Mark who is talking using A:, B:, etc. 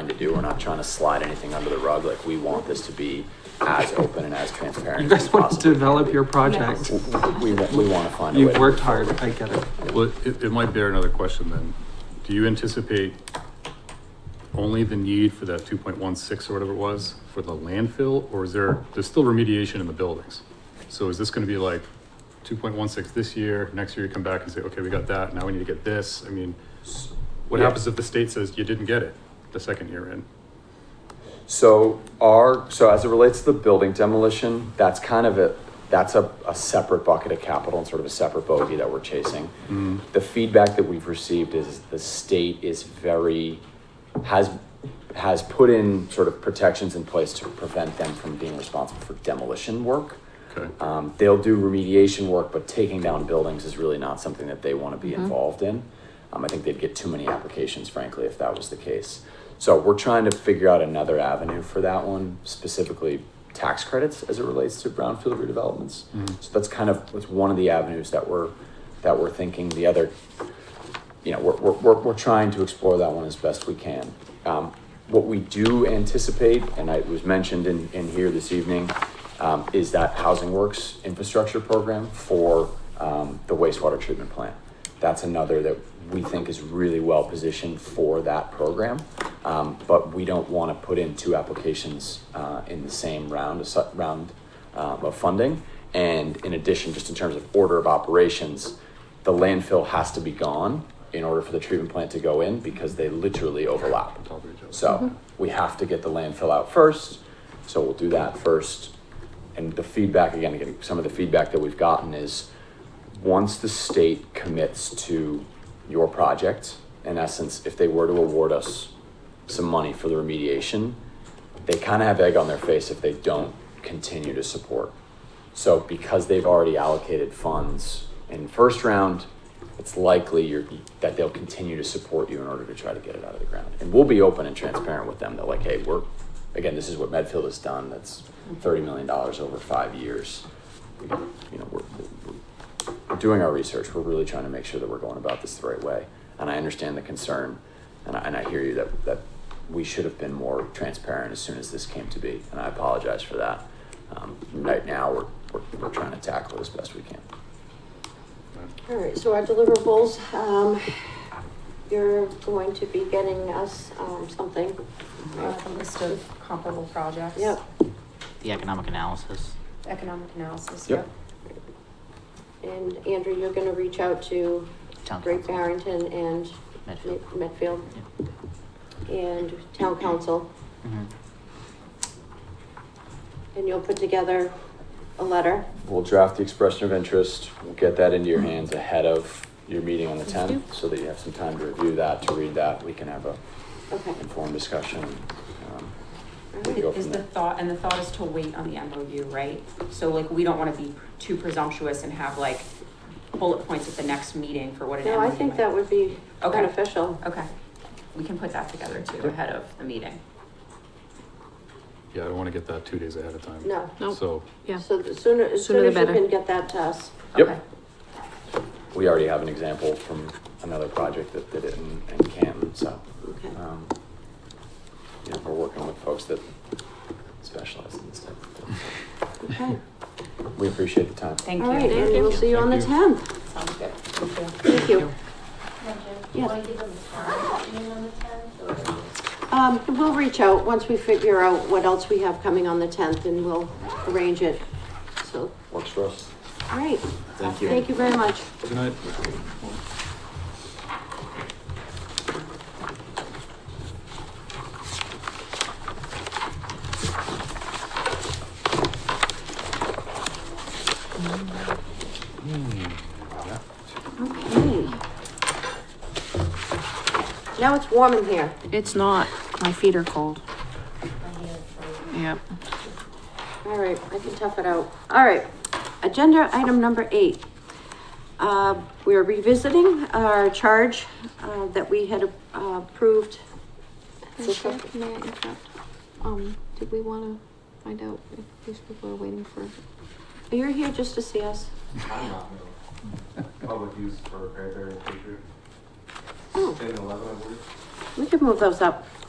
A: do. We're not trying to slide anything under the rug. Like, we want this to be as open and as transparent.
B: You
A: as we
B: guys want to
A: possibly can
B: develop
A: be.
B: your project.
A: We, wa- we want to find a way.
B: You've
A: to-
B: worked hard, I get it.
C: Well, it, it might bear another question then. Do you anticipate only the need for that two point one six or whatever it was for the landfill, or is there, there's still remediation in the buildings? So is this gonna be like two point one six this year, next year you come back and say, okay, we got that, now we need to get this? I mean, what
D: Yeah.
C: happens if the state says you didn't get it the second year in?
A: So our, so as it relates to the building demolition, that's kind of a, that's a, a separate bucket of capital and sort of a separate bogey that we're chasing.
B: Mm-hmm.
A: The feedback that we've received is the state is very, has, has put in sort of protections in place to prevent them from being responsible for demolition work.
C: Okay,
E: Uh,
A: Um, they'll do remediation work, but taking down buildings is really not something that they want to be involved in. Um, I think they'd get too many applications, frankly, if that was the case. So we're trying to figure out another avenue for that one, specifically tax credits as it relates to brownfield redevelopments. So that's kind of that's one of the avenues that we're that we're thinking. The other you know, we're, we're, we're, we're trying to explore that one as best we can. Um, what we do anticipate, and I- it was mentioned in, in here this evening, um, is that Housing Works infrastructure program for, um, the wastewater treatment plant. That's another that we think is really well positioned for that program. Um, but we don't want to put in two applications, uh, in the same round, a su- round, um, of funding. And in addition, just in terms of order of operations, the landfill has to be gone in order for the treatment plant to go in because they literally overlap.
C: top of each other.
A: So we have to get the landfill out first, so we'll do that first. And the feedback, again, again, some of the feedback that we've gotten is, once the state commits to your project, in essence, if they were to award us some money for the remediation, they kind of have egg on their face if they don't continue to support. So because they've already allocated funds in first round, it's likely you're, that they'll continue to support you in order to try to get it out of the ground. And we'll be open and transparent with them. They're like, hey, we're, again, this is what Medfield has done. That's thirty million dollars over five years. We- You know, we're, we're, we're doing our research. We're really trying to make sure that we're going about this the right way. And I understand the concern, and I, and I hear you that, that we should have been more transparent as soon as this came to be. And I apologize for that. Um, right now, we're, we're, we're trying to tackle it as best we can.
E: All right, so our deliverables, um, you're going to be getting us, um, something.
F: uh, the list of comparable projects.
E: Yep,
G: the economic analysis.
F: Economic analysis,
A: Yep.
F: yep.
E: and Andrew, you're gonna reach out to
G: Town
E: Great
G: council.
E: Barrington and
G: Medfield.
E: Med- Medfield
G: Yeah.
E: and Town Council,
G: Mhm.
E: and you'll put together a letter.
A: We'll draft the expression of interest. We'll get that into your hands ahead of your meeting on the 10th so that you have some time to review that, to read that. We can have a
E: Okay.
A: informed discussion. Um,
E: all right.
A: go
F: Is
A: from
F: the
A: there.
F: thought, and the thought is to wait on the MOU, right? So like, we don't wanna be too presumptuous and have like bullet points at the next meeting for what an MOU
E: No, I think that
F: might-
E: would be
F: Okay.
E: beneficial.
F: Okay, we can put that together too, ahead of the meeting.
C: Yeah, I don't wanna get that two days ahead of time.
E: No,
H: No.
C: So,
H: Yeah,
E: so the sooner, as
H: Sooner
E: soon
H: the
E: as you
H: better.
E: can get that to us.
A: Yep.
F: Okay.
A: We already have an example from another project that did it in, in Canton, so.
E: Okay.
A: um, Yeah, we're working with folks that specialize in this type of thing.
E: Okay.
A: We appreciate the time.
F: Thank
E: All right,
F: you.
E: and we'll see you on the
C: Thank you.
E: tenth.
F: Sounds good. Thank you.
E: Thank
I: Do
E: you.
I: you
E: Yes.
I: want to give them a time, you know, on the tenth, or?
E: Um, we'll reach out once we figure out what else we have coming on the tenth and we'll arrange it. So,
A: Works for us.
E: all right,
A: Thank you.
E: thank you very much.
C: good night.
E: Okay. Now it's warm in here.
H: it's not. My feet are cold. Yep.
E: All right, I can tough it out. All right, agenda item number eight. Uh, we are revisiting our charge, uh, that we had uh, approved.
J: Chair, May I interrupt? Um, did we wanna find out if these people are waiting for
E: You're here just to see us.
K: I'm not no. Public use for Cranberry and Patriot.
E: Oh,
K: Ten and eleven, I believe.
E: we could move those up.